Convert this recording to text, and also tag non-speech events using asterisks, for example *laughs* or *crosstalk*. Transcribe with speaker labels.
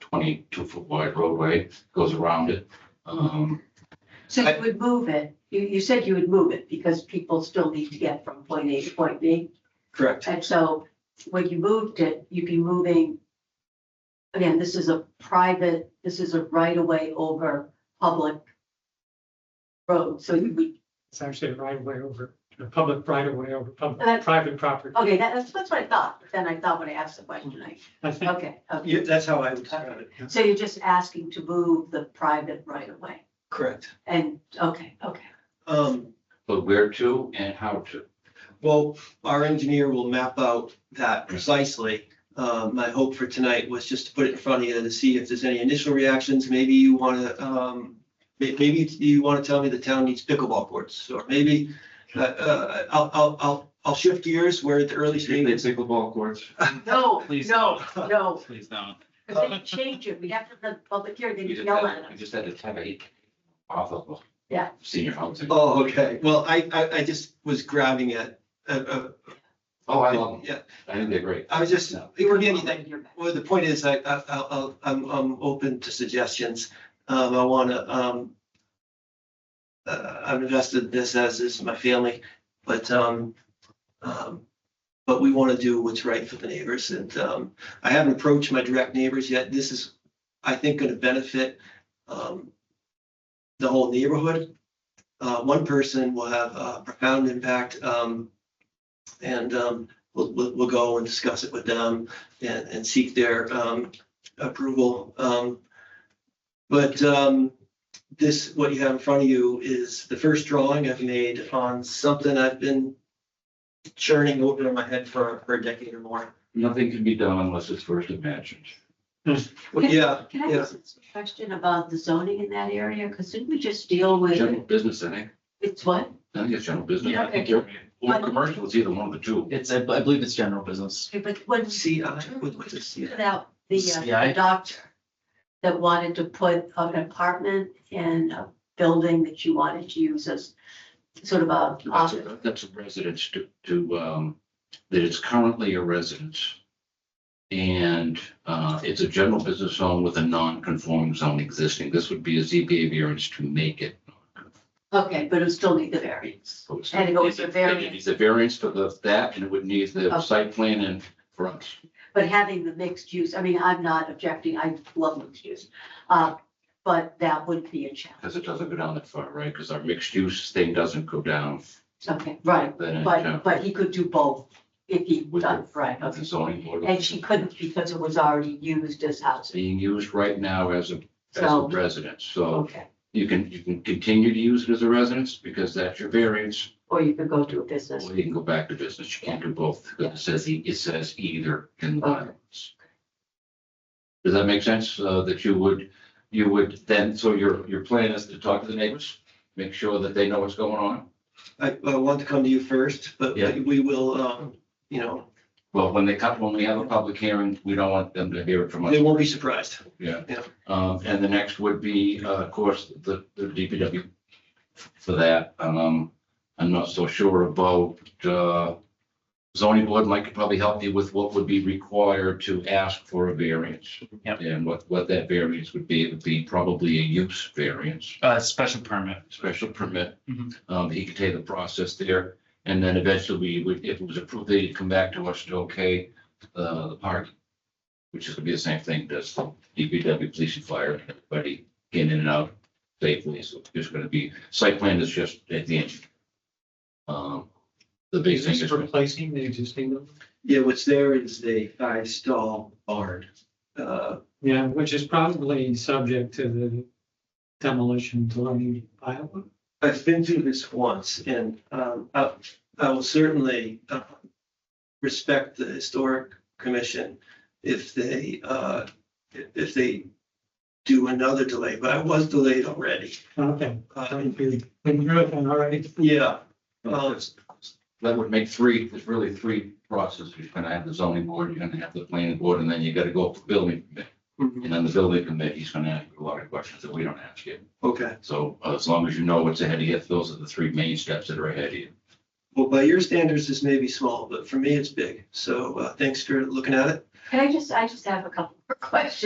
Speaker 1: twenty-two foot wide roadway, goes around it. Um,
Speaker 2: So
Speaker 3: I-
Speaker 2: you would move it, you, you said you would move it because people still need to get from point A to point B.
Speaker 3: Correct.
Speaker 2: And so when you moved it, you'd be moving, again, this is a private, this is a right of way over public road. So you would,
Speaker 4: It's actually a right of way over, a public right of way over public,
Speaker 2: That's-
Speaker 4: private property.
Speaker 2: okay, that- that's, that's what I thought. But Then I thought when I asked the question, I,
Speaker 4: I think,
Speaker 2: okay, okay.
Speaker 3: Yeah, that's how I would describe it.
Speaker 2: So you're just asking to move the private right of way.
Speaker 3: Correct.
Speaker 2: And, okay, okay.
Speaker 3: Um,
Speaker 1: but where to and how to.
Speaker 3: well, our engineer will map out that precisely. Um, my hope for tonight was just to put it in front of you to see if there's any initial reactions. Maybe you wanna, um, may- maybe you wanna tell me the town needs pickleball courts, or maybe, uh, uh, I'll, I'll, I'll, I'll shift gears. We're at the early stages.
Speaker 5: pickleball courts.
Speaker 2: No,
Speaker 5: Please.
Speaker 2: no, no.
Speaker 1: *laughs*
Speaker 5: Please don't.
Speaker 2: If they change it, we have to have the public hearing, they
Speaker 1: We just
Speaker 2: yell
Speaker 1: had-
Speaker 2: at
Speaker 1: we
Speaker 2: us.
Speaker 1: just had a tabby off of
Speaker 2: Yeah.
Speaker 1: senior housing.
Speaker 3: Oh, okay. Well, I, I, I just was grabbing at, uh,
Speaker 1: Oh, I love them.
Speaker 3: yeah,
Speaker 1: I think they're great.
Speaker 3: I was just,
Speaker 1: No.
Speaker 3: it could be anything. Well, the point is, I, I, I'll- I'll, I'm, I'm open to suggestions. Um, I wanna, um, uh, I've invested in this as is my family, but, um, um, but we wanna do what's right for the neighbors and, um, I haven't approached my direct neighbors yet. This is, I think, gonna benefit, um, the whole neighborhood. Uh, one person will have a profound impact, um, and, um, we'll, we'll, we'll go and discuss it with them and, and seek their um, approval. Um, But um, this, what you have in front of you is the first drawing I've made on something I've been churning over in my head for, for a decade or more.
Speaker 1: Nothing can be done unless it's first imagined.
Speaker 3: But yeah,
Speaker 2: Can I
Speaker 3: Yeah.
Speaker 2: ask a question about the zoning in that area? Because didn't we just deal
Speaker 1: General
Speaker 2: with,
Speaker 1: business, I think.
Speaker 2: it's what?
Speaker 1: I think it's general business.
Speaker 2: Yeah,
Speaker 1: I think you're, or commercial, it's either one of the two.
Speaker 5: It's, I I believe it's general business.
Speaker 2: Okay, But when we
Speaker 3: see, I, what, what's this?
Speaker 2: figured out the uh,
Speaker 5: Yeah, I-
Speaker 2: the doctor that wanted to put an apartment in a building that you wanted to use as sort of a
Speaker 1: That's
Speaker 2: office.
Speaker 1: a, that's a residence to, to, um, that is currently a residence. And, uh, it's a general business zone with a non-conforming zone existing. This would be a ZBA variance to make it.
Speaker 2: Okay, but it would still need the variance. And it goes to variance.
Speaker 1: It's a variance for the, that, and it would need the
Speaker 2: Okay.
Speaker 1: site plan and fronts.
Speaker 2: But having the mixed use, I mean, I'm not objecting, I love mixed use. Uh, But that would be a challenge.
Speaker 1: Because it doesn't go down that far, right? Because our mixed use thing doesn't go down.
Speaker 2: Okay, right.
Speaker 1: Then it, uh,
Speaker 2: But, but he could do both if he
Speaker 1: With
Speaker 2: done, right,
Speaker 1: of
Speaker 2: okay.
Speaker 1: the zoning board.
Speaker 2: And she couldn't because it was already used as housing,
Speaker 1: Being used right now as a, as a
Speaker 2: So-
Speaker 1: residence, so
Speaker 2: okay.
Speaker 1: you can, you can continue to use it as a residence because that's your variance.
Speaker 2: Or you could go to a business.
Speaker 1: Or you can go back to business, you can't do both, because it says, e- it says either in the
Speaker 2: Okay.
Speaker 1: bylaws. Does that make sense, uh, that you would, you would then, so your, your plan is to talk to the neighbors, make sure that they know what's going on?
Speaker 3: I, I want to come to you first, but
Speaker 1: Yeah.
Speaker 3: we will, um, you know,
Speaker 1: Well, when they come, when we have a public hearing, we don't want them to hear it from us.
Speaker 3: they won't be surprised.
Speaker 1: Yeah.
Speaker 3: Yeah.
Speaker 1: Um, and the next would be, uh, of course, the, the DPW for that. Um, I'm not so sure about, uh, zoning board, Mike could probably help you with what would be required to ask for a variance.
Speaker 5: Yep.
Speaker 1: And what, what that variance would be, it would be probably a use variance,
Speaker 5: Uh, special permit.
Speaker 1: special permit.
Speaker 5: Mhm.
Speaker 1: Um, he could take the process there, and then eventually we would, if it was approved, they'd come back to us to okay, uh, the park which is gonna be the same thing, does DPW, police and fire, everybody getting in and out safely, so it's just gonna be, site plan is just at the end. Um, the big
Speaker 4: is
Speaker 1: thing
Speaker 4: this
Speaker 1: is,
Speaker 4: replacing the existing one?
Speaker 3: Yeah, what's there is the five stall barn. Uh,
Speaker 4: Yeah, which is probably subject to the demolition delay bylaw.
Speaker 3: I've been through this once and um, I, I will certainly uh, respect the historic commission if they, uh, if they do another delay, but I was delayed already.
Speaker 4: Okay,
Speaker 3: Uh,
Speaker 4: thank you. Been through it then, all right.
Speaker 3: Yeah, um,
Speaker 1: uh, that would make three, there's really three processes, you're gonna have the zoning board, you're gonna have the planning board, and then you gotta go up to building. committee.
Speaker 3: mhm,
Speaker 1: And then the building committee's gonna ask you a lot of questions that we don't ask you,
Speaker 3: okay.
Speaker 1: so uh, as long as you know what's ahead of you, those are the three main steps that are ahead of you.
Speaker 3: Well, by your standards, this may be small, but for me, it's big. So uh, thanks for looking at it.
Speaker 2: Can I just, I just have a couple more *laughs* questions.